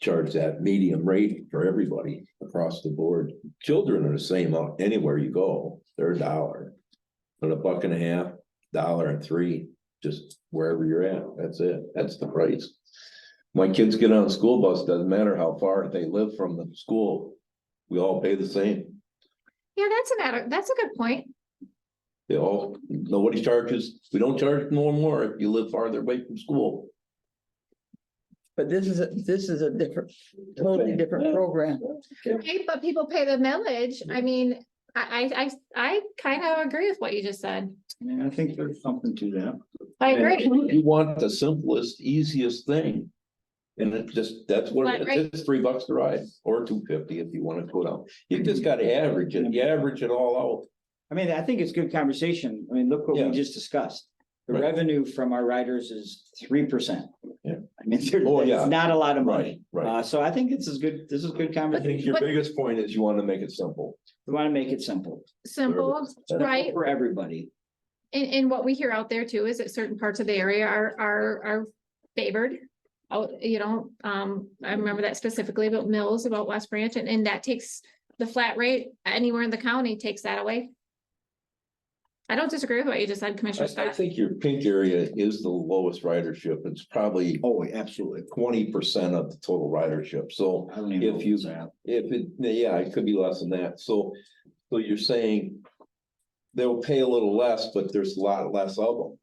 charge that medium rate for everybody across the board. Children are the same out anywhere you go, they're a dollar. But a buck and a half, dollar and three, just wherever you're at, that's it, that's the price. My kids get on a school bus, doesn't matter how far they live from the school, we all pay the same. Yeah, that's a matter, that's a good point. They all, nobody charges, we don't charge no more if you live farther away from school. But this is, a this is a different, totally different program. Right, but people pay the millage. I mean, I, I, I, I kind of agree with what you just said. Yeah, I think there's something to that. I agree. You want the simplest, easiest thing. And it just, that's what, But, it right. is. it's three bucks to ride, or two fifty if you wanna go down, you just gotta average it, you average it all I mean, I think it's good conversation. I mean, look what Yeah. we just discussed. The Right. revenue from our riders is three percent. Yeah. I mean, there- Oh, yeah. it's not a lot out. of money. Right. Uh, so I think this is good, this is good I think conversation. your biggest point is you wanna make it simple. We want to make it simple. Simple, right? For everybody. And, and what we hear out there too is that certain parts of the area are, are, are favored. Oh, you know, um, I remember that specifically about Mills, about West Branch, and, and that takes the flat rate anywhere in the county takes that away. I don't disagree with what you just said, I, Commissioner I Scott. think your pink area is the lowest ridership, it's probably Oh, absolutely. twenty percent of the total ridership, so. I don't even know If you- what's that. If it, yeah, it could be less than that, so, so you're saying. They'll pay a little less, but there's a lot less of them.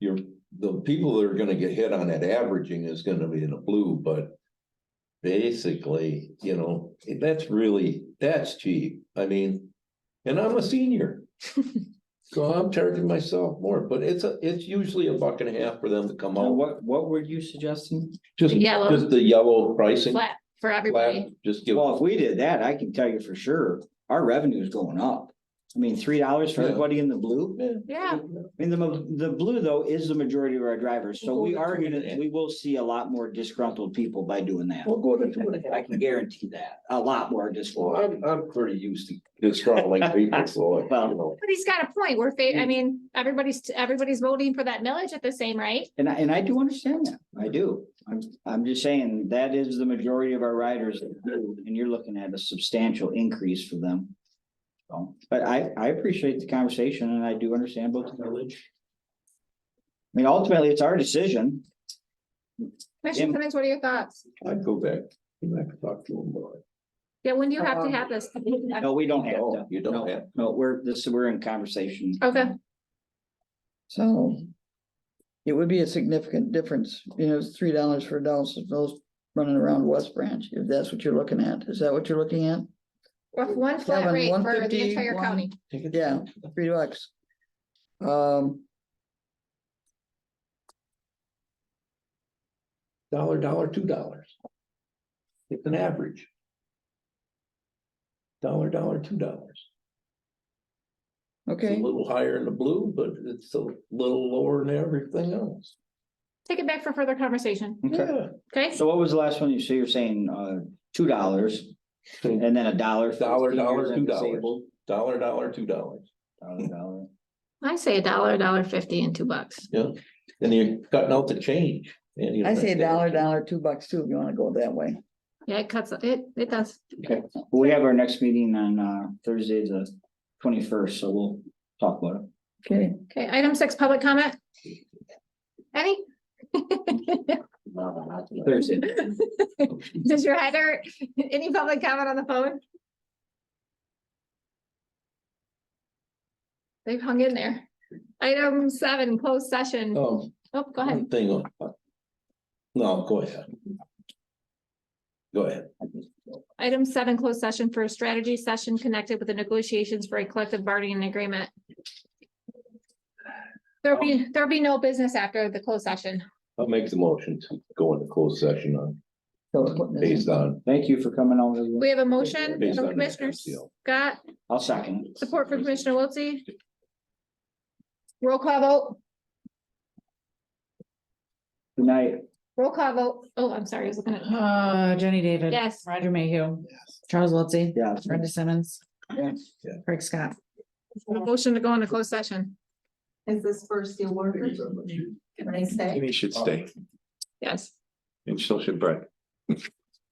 You're, the people that are gonna get hit on that averaging is gonna be in the blue, but. Basically, you know, that's really, that's cheap, I mean, and I'm a senior. So I'm charging myself more, but it's a, it's usually a buck and a half for them to come Now, out, what, what were you suggesting? just, Yellow. just the yellow pricing. Flat for flat, everybody. Just give. Well, if we did that, I can tell you for sure, our revenue is going up. I mean, three dollars for Yeah. everybody in the blue. Yeah, I mean, the, mo- the blue though is the majority of our drivers, so we are gonna, we will see a lot more disgruntled people by doing that. We'll go to two and a half. I can guarantee that, a lot more Well, I'm, disgruntled. I'm pretty used to disgruntled people, so, you Well- know, but he's got a point. We're, Mm. fa- I mean, everybody's, everybody's voting for that millage at the same rate. And I, and I do understand that, I do. I'm, I'm just saying, that is the majority of our riders, and you're looking at a substantial increase for them. So, but I, I appreciate the conversation and I do understand both the village. I mean, ultimately, it's our decision. Commissioner Yeah. Cummings, what are your thoughts? I'd go back, go back and talk to them about it. Yeah, when do you have to Um, have this? No, we don't have to. No, you don't No, have. No, we're, this, we're in conversation. Okay, So it would be a significant difference, you know, it's three dollars for adults, and those running around West Branch, if that's what you're looking at. Is that what you're looking at? with one flat Kevin, rate for the 150, entire one- county. Yeah, three bucks. Um, Dollar, dollar, two dollars. It's an average. Dollar, dollar, two dollars. It's a okay, little higher in the blue, but it's a little lower than everything else. Take it back for further conversation, Okay. Yeah, okay? So what was the last one you say? You're saying, uh, two dollars Hmm. and then a dollar. for Dollar, dollar, seniors and $2. disabled? dollar, dollar, two dollars. Dollar, dollar. I say a dollar, a dollar fifty and two bucks. And you're cutting out the change. and you- I say dollar, dollar, two bucks too, if you wanna go that way. Yeah, it cuts, it, it does. Okay, we have our next meeting on uh Thursday, the twenty-first, so we'll talk about it. Okay, Okay, item six, public comment. Any? Thursday. Does your head hurt? Any public comment on the phone? They've hung in there. Item seven, closed session. Um, Oh, go ahead. one Thing on. uh, No, go ahead. Go ahead. Item seven, closed session for a strategy session connected with the negotiations for a collective bargaining agreement. There'll be, there'll be no business after the closed session. I'll make the motion to go into closed session on, so it's putting this- based on. Thank you for coming over. We have a motion Based from on the Commissioner MCL. Scott, I'll second. support from Commissioner Wiltse. Roll call vote, Good night. roll call vote. Oh, I'm sorry, I was looking at, Uh, Jenny David. yes. Roger Mayhew. Charles Wiltie. Yeah. Brenda Simmons. Yes. Yeah. Craig Scott. Motion to go into closed session. Is this for steel workers? Can I stay? Amy should stay Yes. and so should Brett.